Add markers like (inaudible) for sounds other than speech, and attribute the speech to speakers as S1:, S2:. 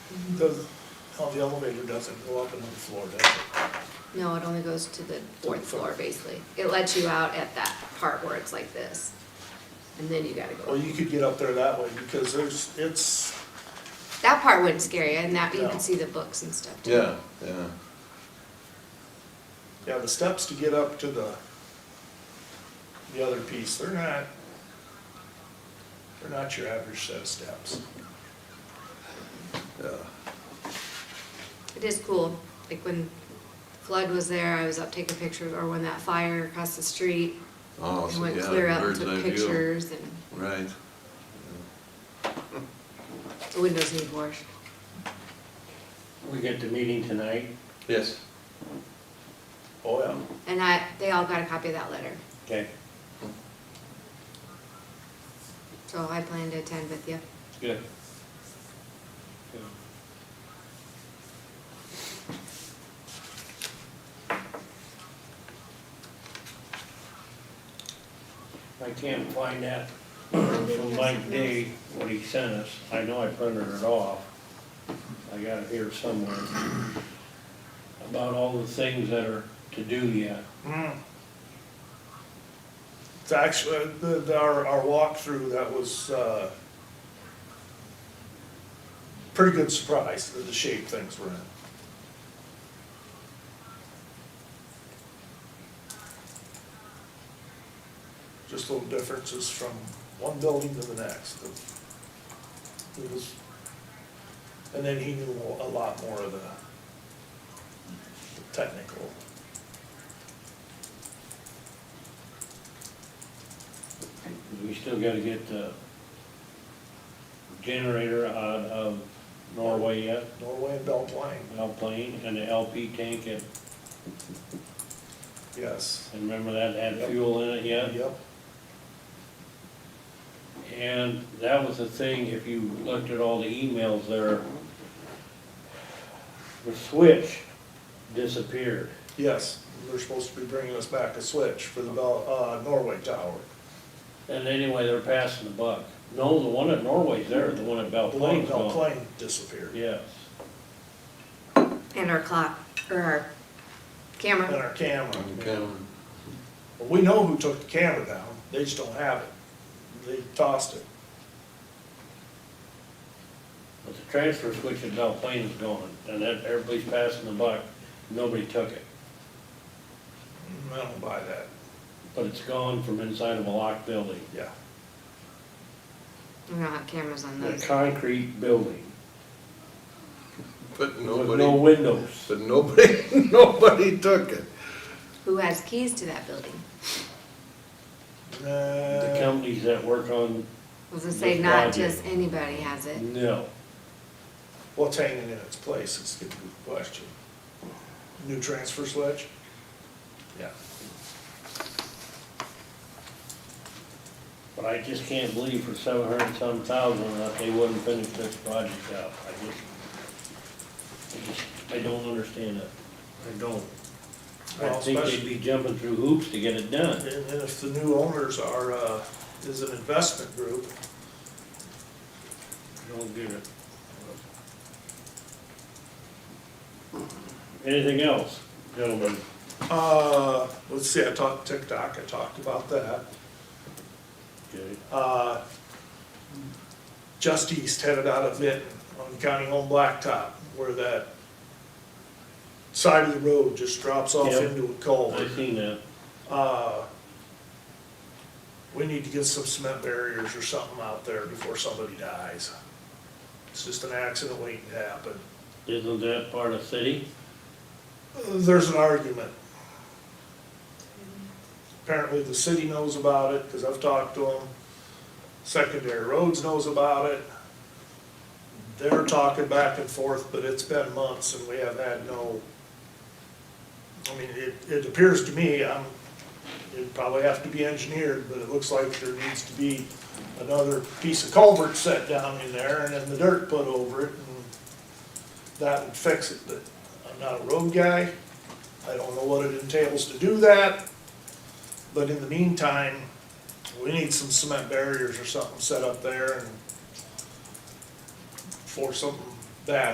S1: Does, oh, the elevator doesn't go up another floor, does it?
S2: No, it only goes to the fourth floor, basically. It lets you out at that part where it's like this. And then you gotta
S1: Well,
S2: go.
S1: you could get up there that way because there's, it's,
S2: That part would scare you, and that, you
S1: Yeah.
S2: can see the books and stuff too.
S3: Yeah, yeah.
S1: yeah, the steps to get up to the, the other piece, they're not, they're not your average set of steps.
S2: It is cool, like when flood was there, I was up taking pictures, or when that fire across the street,
S3: Oh,
S2: I
S3: so
S2: went
S3: yeah,
S2: clear up, and
S3: bird's eye
S2: took
S3: view.
S2: pictures, and
S3: Right.
S2: the windows need wash.
S4: We get the meeting tonight,
S3: Yes.
S1: Oh, yeah.
S2: And I, they all got a copy of that letter,
S4: okay?
S2: so I plan to attend with you.
S4: Good. I can't find that from Mike Day, what he sent us, I know I printed it off, I got it here somewhere. About all the things that are to do yet,
S1: Mm. It's actually, the, the- our, our walkthrough, that was, uh, pretty good surprise, the, the shape things were in. Just little differences from one building to the next. It was, and then he knew a lot more of the technical.
S4: we still gotta get the generator out of Norway yet.
S1: Norway and Bell Plain,
S4: Alplane and the LP tank, and
S1: yes.
S4: and remember that had fuel in it yet?
S1: Yep,
S4: And that was the thing, if you looked at all the emails there, the switch disappeared.
S1: yes, they're supposed to be bringing us back a switch for the Bell, uh, Norway Tower.
S4: And anyway, they're passing the buck. No, the one at Norway's there, the one at Belle
S1: The one in
S4: Plains
S1: Bell
S4: gone.
S1: Plain disappeared,
S4: Yes.
S2: And our clock, or our
S1: and
S2: camera,
S1: our camera.
S3: Okay.
S1: Well, We know who took the camera down, they just don't have it, they tossed it.
S4: But the transfer switch at Belle Plains is gone, and that, everybody's passing the buck, nobody took it.
S1: Mm, I don't buy that,
S4: But it's gone from inside of a locked building,
S1: yeah.
S2: we don't have cameras on
S4: a
S2: those.
S4: concrete building,
S3: But
S4: with
S3: (laughs)
S4: no
S3: nobody,
S4: windows.
S3: but nobody, (laughs) nobody took it.
S2: Who has keys to that building?
S4: The
S1: Nah,
S4: companies that work on,
S2: I was gonna say,
S4: Just
S2: not
S4: lodging.
S2: just anybody has it.
S4: no,
S1: what's hanging in its place is the good question. New transfer switch? Yeah.
S4: but I just can't believe for seven hundred and some thousand that they wouldn't finish this project out. I just, I just, I don't understand it. I don't. I
S1: Well,
S4: think
S1: especially-
S4: they'd be jumping through hoops to get it done.
S1: And and if the new owners are, uh, is an investment group,
S4: I don't get it. Anything else, gentlemen?
S1: Uh, let's see, I talked TikTok, I talked about that.
S4: Okay.
S1: Uh, Just East headed out of Vinton on County Home Blacktop, where that side of the road just drops off
S4: Yep.
S1: into a culvert.
S4: I seen that.
S1: Uh, We need to get some cement barriers or something out there before somebody dies. It's just an accident waiting to happen.
S4: Isn't that part of city?
S1: There's an argument. Apparently, the city knows about it, because I've talked to them. Secondary Roads knows about it. They're talking back and forth, but it's been months and we have had no, I mean, it, it appears to me, I'm, it'd probably have to be engineered, but it looks like there needs to be another piece of culvert set down in there and then the dirt put over it and that would fix it, but I'm not a road guy. I don't know what it entails to do that. But in the meantime, we need some cement barriers or something set up there and for something bad